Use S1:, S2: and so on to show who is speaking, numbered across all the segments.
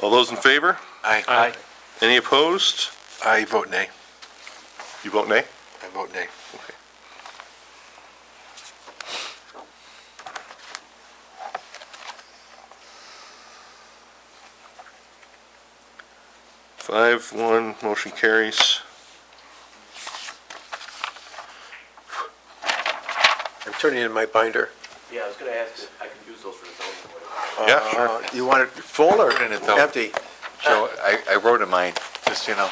S1: All those in favor?
S2: Aye.
S1: Any opposed?
S3: I vote nay.
S1: You vote nay?
S3: I vote nay.
S1: Five, one, motion carries.
S3: I'm turning in my binder.
S4: Yeah, I was gonna ask if I could use those for the zoning board.
S1: Yeah, sure.
S3: Uh, You want it full or
S2: Turn it down.
S3: empty?
S2: Joe, I, I wrote in mine, just, so you know,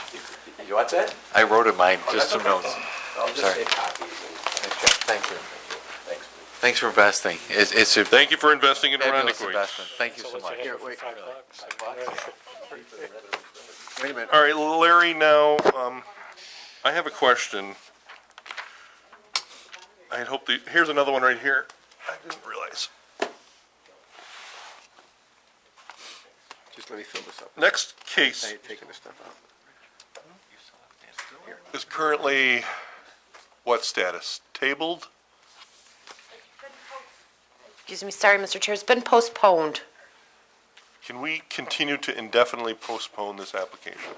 S4: You want that?
S2: I wrote in
S3: Oh,
S2: mine, just some notes.
S4: I'll just
S2: Sorry.
S4: save copies and,
S2: Thank you.
S4: thanks.
S2: Thanks for investing. It's, it's a
S1: Thank you for investing in
S2: fabulous
S1: Arundicoid.
S2: investment. Thank you so much.
S3: Here, wait. Wait a minute.
S1: All right, Larry, now, um, I have a question. I had hoped, the- here's another one right here. I didn't realize.
S3: Just let me fill this up.
S1: Next
S3: I
S1: case
S3: ain't taking this stuff out.
S1: is currently, what status? Tabled?
S5: Excuse me, sorry, Mr. Chair, it's been postponed.
S1: Can we continue to indefinitely postpone this application?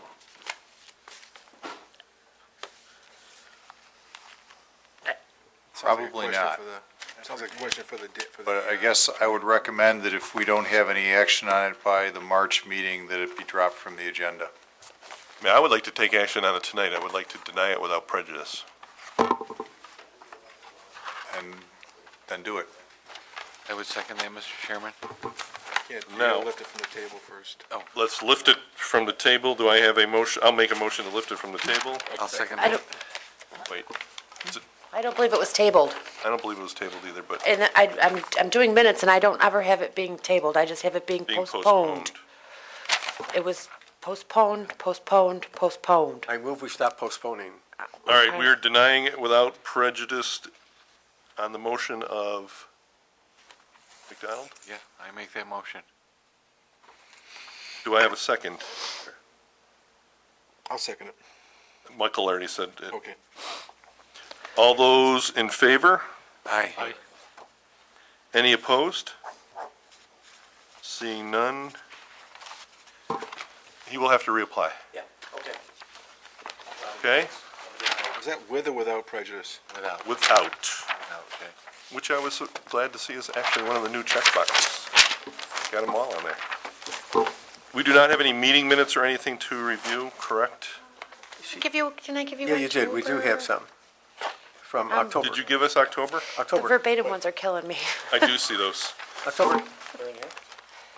S6: Probably not.
S3: Sounds like a question for the, uh, for
S6: But I guess I would recommend that if we don't have any action on it by the March meeting, that it be dropped from the agenda.
S1: I mean, I would like to take action on it tonight. I would like to deny it without prejudice.
S6: And then do it.
S2: I would second that, Mr. Chairman.
S1: No.
S3: Lift it from the table first.
S1: Oh, Let's lift it from the table. Do I have a motion? I'll make a motion to lift it from the table.
S2: I'll second
S5: I
S2: that.
S5: don't,
S1: Wait,
S5: I don't believe it was tabled.
S1: I don't believe it was tabled either, but
S5: And I, I'm, I'm doing minutes and I don't ever have it being tabled. I just have it being
S1: being
S5: postponed.
S1: postponed.
S5: It was postponed, postponed, postponed.
S3: I move we stop postponing.
S1: All right, we are denying it without prejudice on the motion of McDonald.
S2: Yeah, I make that motion.
S1: Do I have a second?
S3: I'll second it.
S1: Michael already said it.
S3: Okay.
S1: All those in favor?
S2: Aye.
S1: Any opposed? Seeing none. He will have to reapply,
S4: Yeah, okay.
S1: okay?
S3: Is that with or without prejudice?
S2: Without,
S1: Without,
S2: without, okay.
S1: which I was so glad to see is actually one of the new checkboxes. Got them all on there. We do not have any meeting minutes or anything to review, correct?
S5: Give you, can I give you?
S3: Yeah, you did. We do have
S5: October?
S3: some from
S5: Um,
S3: October.
S1: Did you give us October?
S5: The
S3: October,
S5: verbatim ones are killing me.
S1: I do see those.
S3: October.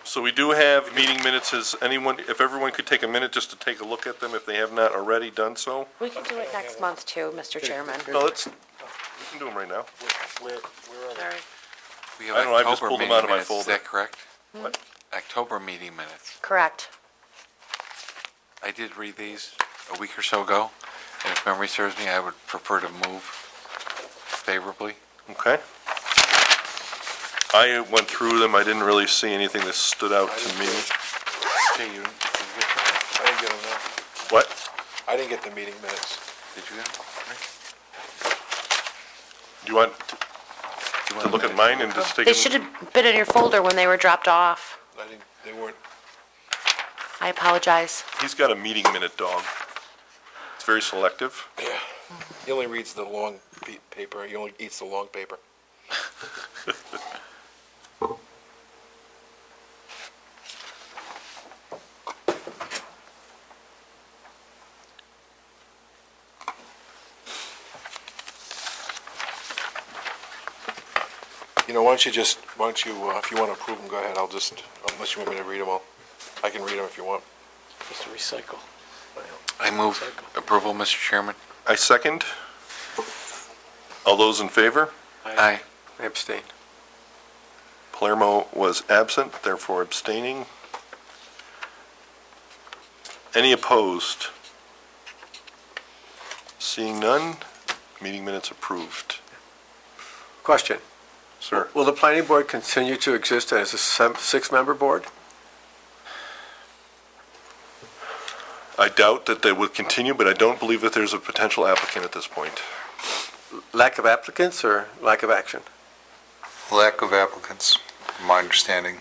S1: So we do have meeting minutes. Is anyone, if everyone could take a minute just to take a look at them if they have not already done so?
S5: We can do it next month too, Mr. Chairman.
S1: No, let's, we can do them right now.
S5: Sorry.
S2: We have
S1: I don't know, I just
S2: October
S1: pulled them
S2: meeting
S1: out of my
S2: minutes, is
S1: folder.
S2: that correct?
S1: What?
S2: October meeting minutes.
S5: Correct.
S2: I did read these a week or so ago, and if memory serves me, I would prefer to move favorably.
S1: Okay. I went through them. I didn't really see anything that stood out to me.
S2: Okay, you, did you get,
S3: I didn't get them.
S1: What?
S3: I didn't get the meeting minutes.
S2: did you get them?
S1: Do you want to-
S2: Do you
S1: to
S2: wanna
S1: look at
S2: make-
S1: mine and just take?
S5: They
S1: a-
S5: should have been in your folder when they were dropped off.
S3: I didn't, they weren't.
S5: I apologize.
S1: He's got a meeting minute dog. It's very selective.
S3: He only reads the long paper. He only eats the long paper. You know, why don't you just, why don't you, uh, if you want to approve them, go ahead. I'll just, unless you want me to read them all. I can read them if you want.
S7: Just to recycle.
S2: I move approval, Mr. Chairman.
S1: I second. All those in favor?
S2: Aye.
S3: Abstain.
S1: Palermo was absent, therefore abstaining. Any opposed? Seeing none, meeting minutes approved.
S3: Question.
S1: Sir?
S3: Will the planning board continue to exist as a sem- six-member board?
S1: I doubt that they would continue, but I don't believe that there's a potential applicant at this point.
S3: Lack of applicants or lack of action?
S6: Lack of applicants, from my understanding.